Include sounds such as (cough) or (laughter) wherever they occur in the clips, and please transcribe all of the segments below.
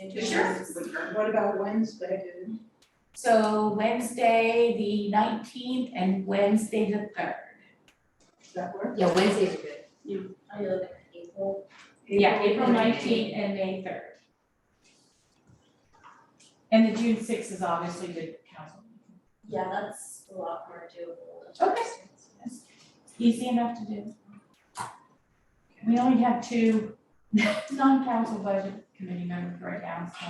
anything Sure. else? What about Wednesday, dude? So Wednesday, the nineteenth and Wednesday, the third. Does that work? Yeah, Wednesdays are good. Are you looking at April? Yeah, April nineteenth and May third. And the June sixth is obviously the council. meeting. Yeah, that's a lot more doable. Okay. Easy enough to do. We only have two (laughs) non-council budget committee members right now, so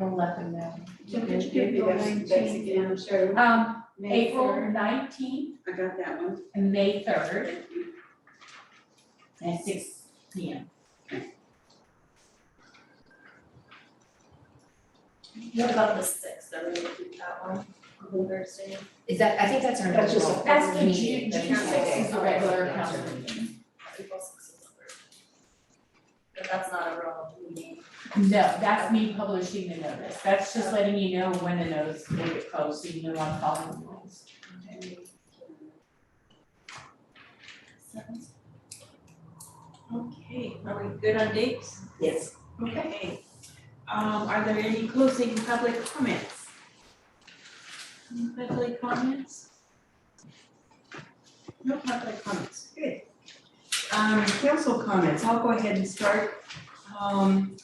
we'll let them know. So could you give me those dates again, I'm sorry. Um, May April third. nineteenth I got that one. and May third at six P M. What about the sixth, are we gonna keep that one, on Thursday? Is that, I think that's our That's just- normal That's the June, meeting, that's June not sixth is Wednesday. the regular Yeah, council sorry. meeting. April sixth is Thursday. But that's not a real (laughs) meeting. No, that's me publishing the notice. That's just letting you know when the notice will get posted, so you know I'm following the rules. Okay, are we good on dates? Yes. Okay. Um, are there any closing public comments? Any Public comments? No public comments, good. Um, council comments, I'll go ahead and start. Um,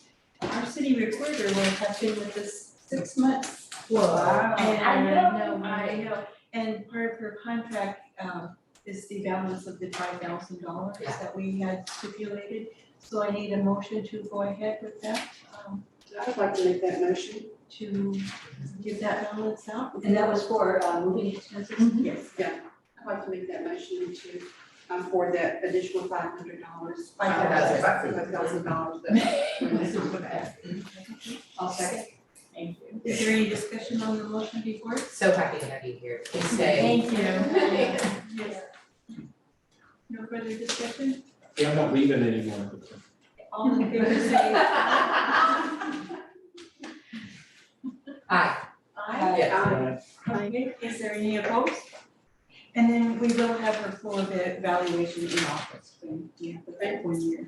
our city recorder will have been with us six months. Wow. And I No, know, no, I know, and part of her contract, um, is the balance of the five thousand dollars Yeah. that we had stipulated. So I need a motion to go ahead with that, um, I'd like to make that motion. to give that balance out. Mm-hmm. And that was for uh, moving expenses? Yes, I'd like to make that motion to, um, for that additional five hundred dollars. $5,000. Five thousand dollars that I'll second. Thank you. is there any discussion on the motion before? So happy to have you here. Please stay. Thank you. Yes. No further discussion? Yeah, I'm not leaving anymore. All in favor say (laughs) aye. Aye. Aye. Okay, is there any opposed? And then we will have her full evaluation in office when you have the back one year.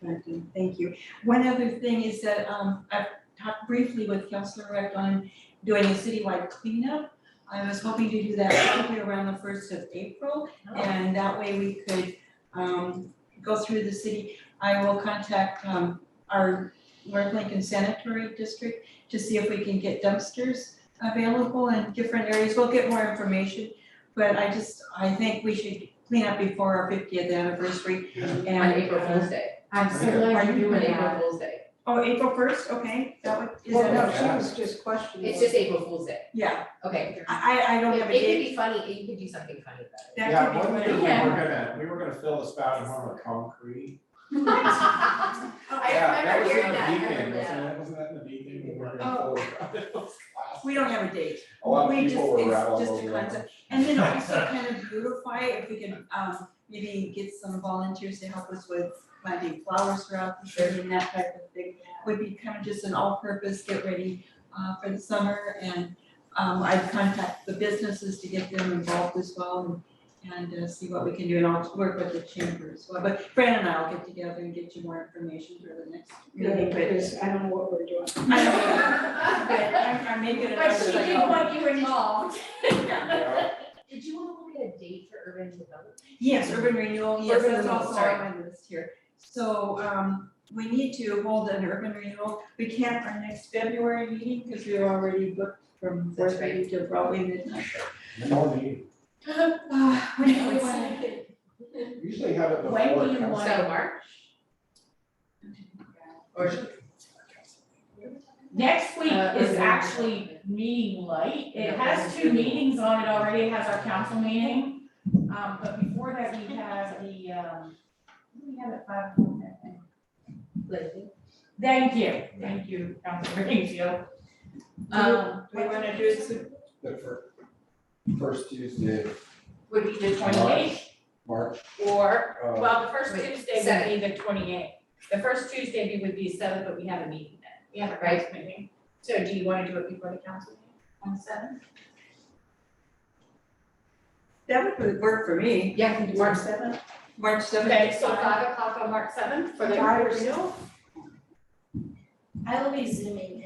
But, um, Thank you. One other thing is that um I've talked briefly with Councilor Rec on doing a citywide cleanup. I was hoping to do that probably around the first of April and that way we could um go through the city. I will contact um our North Lincoln Sanitary District to see if we can get dumpsters available in different areas, we'll get more information. But I just, I think we should clean up before our fiftieth anniversary and. On April uh, Fool's Day. I'm so Are glad you you're doing doing April that. Fool's Day? Oh, April first, okay, that would, is Well, no, that, she was just questioning. It's just April Fool's Day. yeah, Okay. I I I don't It have a it date, could be funny, you could do something funny about (laughs) it. (laughs) that could be one one thing we were Yeah. gonna, we were gonna fill the spout in harm with concrete. I remember hearing that. I Yeah, that was in remember the that. weekend, wasn't that, wasn't that in the weekend we were gonna fill (laughs) the spout? Oh. We don't have a date, A lot of we just, people were it's rattled just over a it. concept, and (laughs) then also kind of beautify if we can um maybe get some volunteers to help us with planting flowers throughout the city and that type of thing. Would be kind of just an all-purpose, get ready uh for the summer and um I'd contact the businesses to get them involved as well and and uh see what we can do and I'll work with the chamber as well, but Fran and I'll get together and get you more information for the next meeting, but Because I don't know what we're doing. I (laughs) don't, but I'm I'm making it. But she didn't want you (laughs) involved. Yeah. Did you want to look at a date for urban development? Yes, urban renewal, yes, Urban that's renewal, also sorry. on my list here. So, um, we need to hold an urban renewal, we can't our next February meeting, because we're already booked from That's four thirty to probably midnight. No need. Uh, we- we wanna- Usually have it before. When do you council. want- So March? Or Next week Uh, is okay. actually meeting light. It Yeah. has two meetings on it already. It has our council meeting. Um, but before that, we have the, um, what do we have at five o'clock that day? Lincoln? Thank you, thank you, Councilor Greenfield. Um, We wanna do it soon, The fir- first Tuesday, of would be the twenty eighth March, Or, uh, well, the first Wait, Tuesday would seven. be the twenty eighth. The first Tuesday would be the seventh, but we have a meeting then. We have a Right. rights meeting. So do you wanna do it before the council meeting on the seventh? that would work for me, Yeah, March seventh? March seventh. Okay, so five o'clock on March seventh for the Five or renewal? I will be zooming